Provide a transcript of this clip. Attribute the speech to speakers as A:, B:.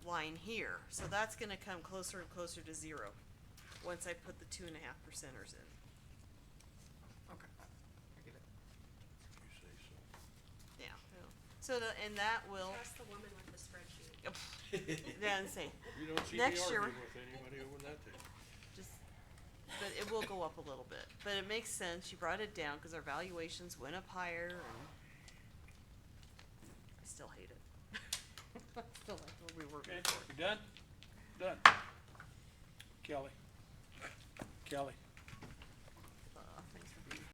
A: line here, so that's gonna come closer and closer to zero, once I put the two and a half percenters in.
B: Okay. I get it.
A: Yeah, so the, and that will,
C: Trust the woman with the spreadsheet.
A: then say,
D: You don't see me
A: Next year-
D: arguing with anybody over that thing.
A: just, but it will go up a little bit, but it makes sense, you brought it down, cause our valuations went up higher and I still hate it. Still like where we were
E: Okay,
A: before.
E: you done? Done. Kelly. Kelly.
A: "Oh,